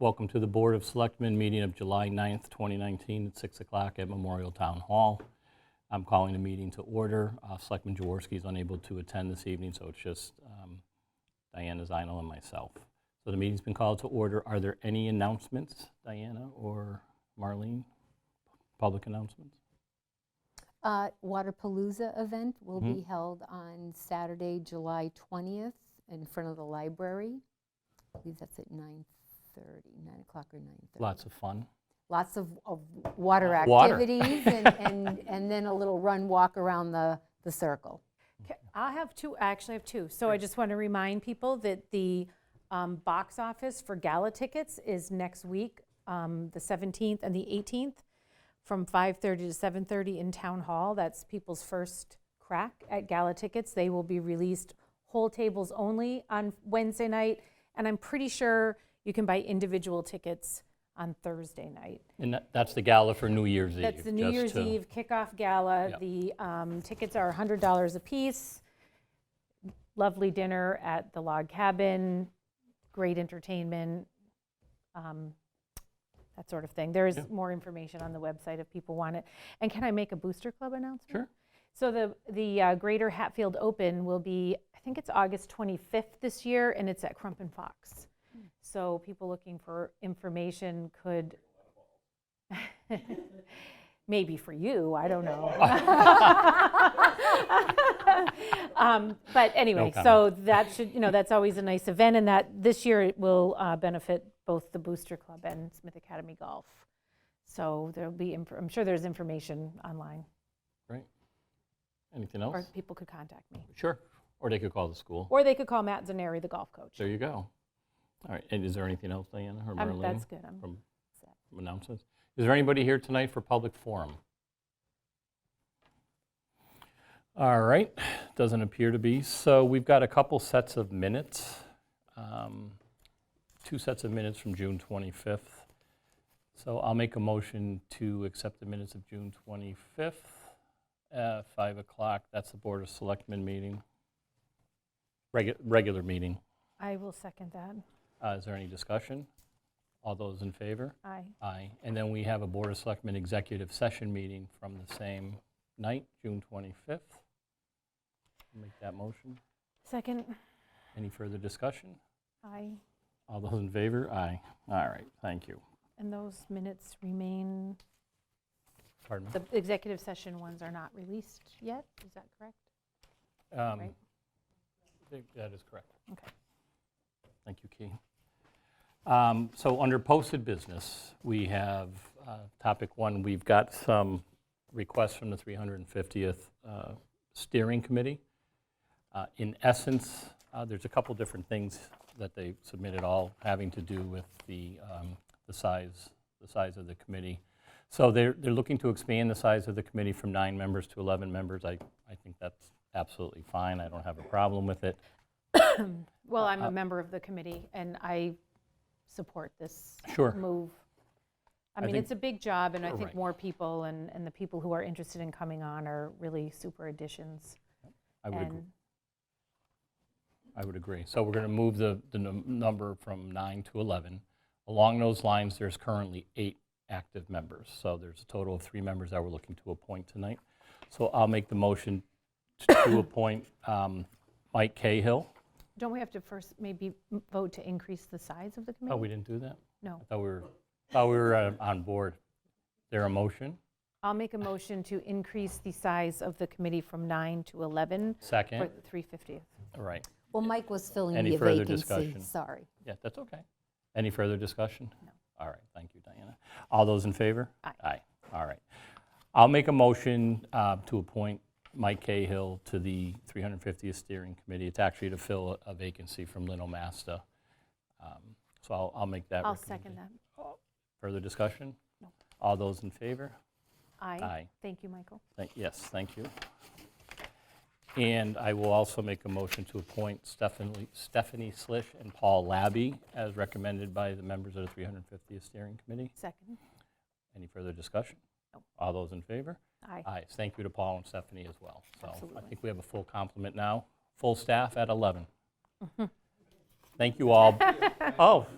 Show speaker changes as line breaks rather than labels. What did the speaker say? Welcome to the Board of Selectmen meeting of July 9th, 2019, at 6 o'clock at Memorial Town Hall. I'm calling the meeting to order. Uh, Selectman Jaworski is unable to attend this evening, so it's just um, Diana Zinal and myself. So the meeting's been called to order. Are there any announcements, Diana or Marlene? Public announcements?
Uh, Waterpalooza event will
Mm-hmm.
be held on Saturday, July 20th, in front of the library. I believe that's at 9:30, 9 o'clock or 9:30.
Lots of fun.
Lots of, of water
Water.
activities, and, and, and then a little run, walk around the, the circle.
Ca- I have two, I actually have two. So I just want to remind people that the um, box office for gala tickets is next week, um, the 17th and the 18th, from 5:30 to 7:30 in Town Hall. That's people's first crack at gala tickets. They will be released whole tables only on Wednesday night, and I'm pretty sure you can buy individual tickets on Thursday night.
And that- that's the gala for New Year's Eve.
That's the New
just
Year's
to-
Eve kickoff gala.
Yep.
The um, tickets are $100 apiece. Lovely dinner at the log cabin, great entertainment, um, that sort of thing. There is more information on the website if people want it. And can I make a Booster Club announcement?
Sure.
So the, the uh, Greater Hatfield Open will be, I think it's August 25th this year, and it's at Crump and Fox. So people looking for information could, maybe for you, I don't know. Um, But anyway, so that should, you know, that's always a nice event, and that, this year it will uh, benefit both the Booster Club and Smith Academy Golf. So there'll be, inf- I'm sure there's information online,
Great. Anything
or
else?
people could contact me.
Sure. Or they could call the school.
Or they could call Matt Zaneri, the golf coach.
There you go. All right, and is there anything else, Diana or
Um,
Marlene?
That's good. I'm-
From from announcements? Is there anybody here tonight for public forum? All right, doesn't appear to be. So we've got a couple sets of minutes. um, Two sets of minutes from June 25th. So I'll make a motion to accept the minutes of June 25th at 5 o'clock. That's the Board of Selectmen meeting, Regu- regular meeting.
I will second that.
Uh, Is there any discussion? All those in favor?
Aye.
Aye. And then we have a Board of Selectmen executive session meeting from the same night, June 25th. Make that motion.
Second,
Any further discussion?
aye.
All those in favor? Aye. All right, thank you.
And those minutes remain,
Pardon me?
the executive session ones are not released yet, is that correct?
Um,
right.
th- That is correct.
Okay.
Thank you, Key. Um, So under posted business, we have, uh, topic one, we've got some requests from the 350th uh, Steering Committee. Uh, In essence, uh, there's a couple different things that they submitted, all having to do with the um, the size, the size of the committee. So they're, they're looking to expand the size of the committee from nine members to 11 members. I, I think that's absolutely fine. I don't have a problem with it.
Well,
Uh,
I'm a member of the committee, and I support this
Sure.
move. I
I
mean,
think-
it's a big job, and I think
Right.
more people and, and the people who are interested in coming on are really super additions.
I would, agree.
And
I would agree. So we're going to move the, the num- number from nine to 11. Along those lines, there's currently eight active members. So there's a total of three members that we're looking to appoint tonight. So I'll make the motion t- to appoint um, Mike Cahill.
don't we have to first maybe m- vote to increase the size of the committee?
Oh, we didn't do that?
No.
I thought we were, thought we were uh, on board. There a motion?
I'll make a motion to increase the size of the committee from nine to 11 for
Second?
the 350th.
All right.
Well, Mike was filling
Any
the
further
vacancy,
discussion?
sorry.
Yeah, that's okay. Any further discussion? No. All right, thank you, Diana. All those in favor?
Aye.
Aye, all right. I'll make a motion uh, to appoint Mike Cahill to the 350th Steering Committee. It's actually to fill a a vacancy from Lino Masta. Um, So I'll, I'll make that
I'll second
recommendation.
that.
Further discussion?
No.
All those in favor? Aye.
Aye. Thank you, Michael.
Thank- Yes, thank you. And I will also make a motion to appoint Stephanie Stephanie Slish and Paul Labby as recommended by the members of the 350th Steering Committee.
Second.
Any further discussion?
No.
All those in favor?
Aye.
Aye. Thank you to Paul and Stephanie as well. So I
Absolutely.
think we have a full complement now, full staff at 11. Thank you all. Oh,